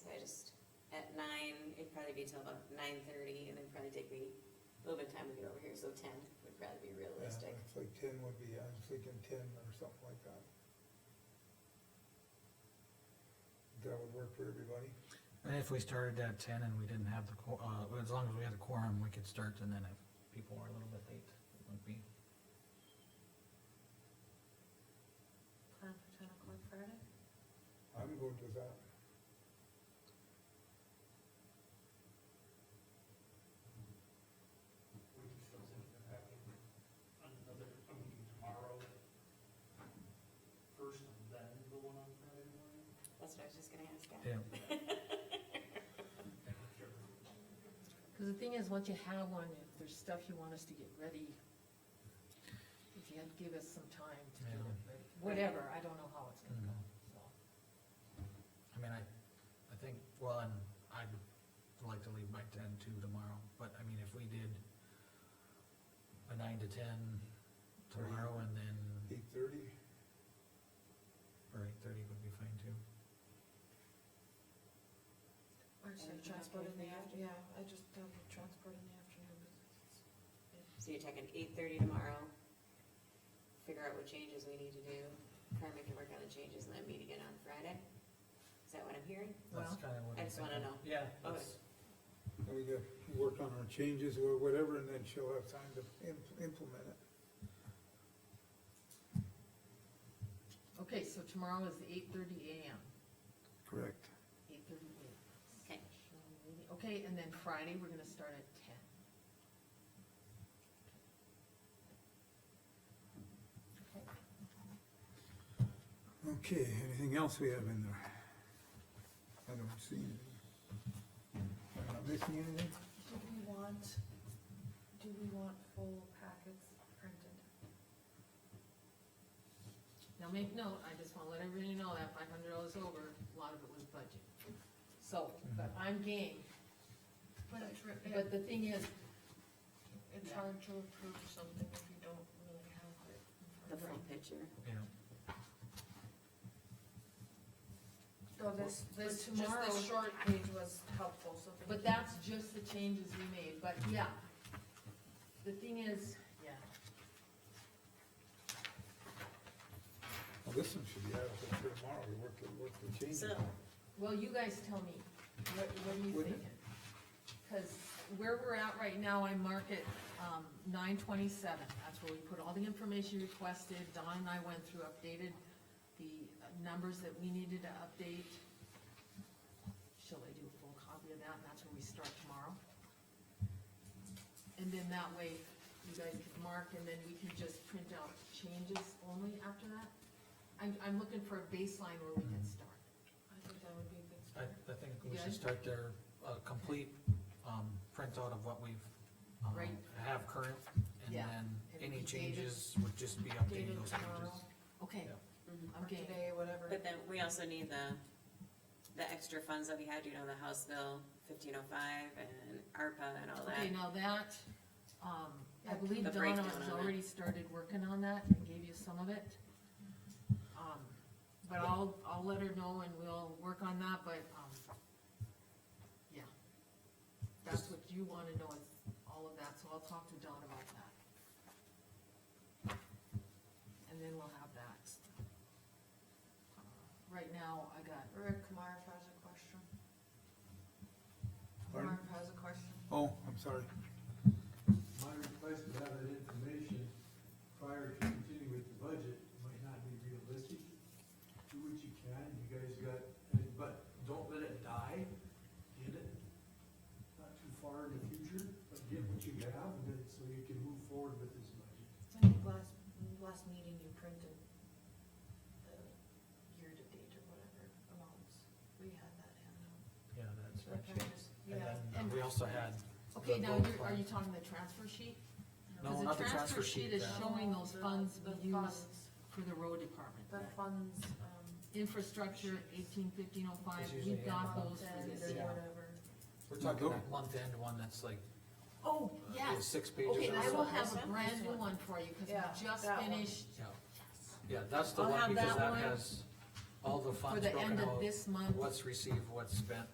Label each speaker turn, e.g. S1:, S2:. S1: probably be till about nine thirty, and it'd probably take me a little bit of time to get over here, so ten would probably be
S2: Yeah,
S1: realistic.
S2: It's like ten would be, I was thinking ten or something like that. That would work for everybody.
S3: And if we started at ten and we didn't have the, qu- uh, as long as we had the quorum, we could start, and then if people were a little bit late, it would be.
S4: Plan for ten o'clock Friday?
S2: I'm good with that.
S5: We can still send it back in another, a meeting tomorrow. First and then the one on Friday morning.
S1: That's what I was just gonna ask. Al.
S3: Yeah,
S4: Cause the thing is, once you have one, if there's stuff you want us to get ready, if you had to give us some time to get it ready, whatever, I don't know how it's gonna go, so.
S3: I mean, I, I think, well, and I'd like to leave by ten too tomorrow, but I mean, if we did a nine to ten tomorrow and then,
S2: Eight thirty,
S3: or eight thirty would be fine too.
S6: Or
S1: And
S6: say
S1: if you have
S6: transport in the
S1: anything
S6: after,
S1: after-
S6: yeah, I just done the transport in the afternoon. because it's-
S1: So you're talking eight thirty tomorrow, figure out what changes we need to do, Carmen can work on the changes and then meet again on Friday? Is that what I'm hearing?
S3: That's
S4: Well,
S3: kinda what
S1: I
S3: I'm
S1: just wanna
S3: thinking.
S1: know.
S3: Yeah, that's,
S2: and we could work on our changes or whatever, and then she'll have time to im- implement it.
S4: Okay, so tomorrow is eight thirty AM,
S2: Correct.
S4: eight thirty AM.
S1: Okay.
S4: Okay, and then Friday, we're gonna start at ten.
S2: Okay, anything else we have in there? I don't see anything. Am I missing anything?
S6: Do we want, do we want full packets printed?
S4: Now make note, I just wanna let everybody know that five hundred dollars over, a lot of it was budget. So, but I'm game,
S6: But it's, re-
S4: but the thing is,
S6: it's
S4: yeah.
S6: hard to approve something if you don't really have it.
S1: The
S6: in front
S1: full
S6: of you.
S1: picture.
S3: yeah,
S6: So this, this, just
S4: tomorrow-
S6: the short page was helpful, so. we
S4: but
S6: can-
S4: that's just the changes we made, but yeah. The thing is, yeah,
S2: Well, this one should be out for tomorrow, we work, the- work the changes.
S1: So,
S4: well, you guys tell me, what, what are you
S2: Wouldn't it?
S4: thinking? Cause where we're at right now, I mark it, um, nine twenty-seven, that's where we put all the information you requested, Don and I went through, updated the uh, numbers that we needed to update. Shall I do a full copy of that, and that's where we start tomorrow? And then that way, you guys could mark, and then we can just print out changes only after that? I'm, I'm looking for a baseline where we can start.
S6: I think that would be a good
S3: I,
S6: start.
S3: I think we
S4: Yeah.
S3: should start there, a complete, um, printout of what we've, um,
S4: Right.
S3: have current, and
S4: Yeah.
S3: then
S4: And
S3: any
S4: dated-
S3: changes would just be updating
S6: Dated
S3: those
S6: tomorrow,
S3: changes.
S4: Okay,
S3: Yeah.
S1: mhm.
S6: or
S4: I'm game.
S6: today, whatever.
S1: but then we also need the, the extra funds that we had, you know, the House Bill fifteen oh five and ARPA and all that.
S4: Okay, now that, um, I
S6: Yeah,
S4: believe
S1: the
S4: Donna
S1: breakdown
S4: has
S1: on it.
S4: already started working on that and gave you some of it. Um, but I'll, I'll let her know and we'll work on that, but, um, yeah. That's what you wanna know, is all of that, so I'll talk to Don about that. And then we'll have that. Uh, Right now, I got,
S6: Rick Kamara has a question.
S2: Pardon?
S6: Kamara has a question.
S2: Oh, I'm sorry.
S7: My request to have that information prior to continuing with the budget might not be realistic. Do what you can, you guys got, but don't let it die, get it, not too far in the future, but get what you have, and then, so you can move forward with this budget.
S6: I think last, last meeting you printed the year-to-date or whatever amounts, we had that handout.
S3: Yeah, that's
S6: Should I
S3: right.
S6: just-
S3: And
S6: Yeah,
S3: then we also had.
S4: okay,
S3: the
S4: now
S3: road
S4: you're, are
S3: fund.
S4: you talking the transfer sheet?
S3: No,
S4: Cause
S3: not
S4: the transfer sheet is
S3: that-
S4: showing those funds
S6: The
S4: we used
S6: funds-
S4: for the road department.
S6: The funds, um,
S4: Infrastructure, eighteen fifteen oh five,
S3: It's
S4: we
S3: usually
S4: got
S3: in the
S4: those for
S6: and
S4: this
S3: Yeah.
S4: year.
S6: whatever.
S3: We're talking that month end one that's like,
S4: Oh,
S3: uh,
S4: yes,
S3: six pages.
S4: okay,
S3: or
S4: I will
S3: so.
S4: have
S6: This
S4: a
S6: one?
S4: brand
S6: This
S4: new
S6: one.
S4: one for you, cause
S6: Yeah,
S4: we just
S6: that one.
S4: finished
S3: Yeah. Yeah, that's the
S4: I'll
S3: one
S4: have
S3: because
S4: that
S3: that
S4: one
S3: has all the
S4: for
S3: funds
S4: the
S3: broken
S4: end of
S3: out,
S4: this month.
S3: what's received, what's spent.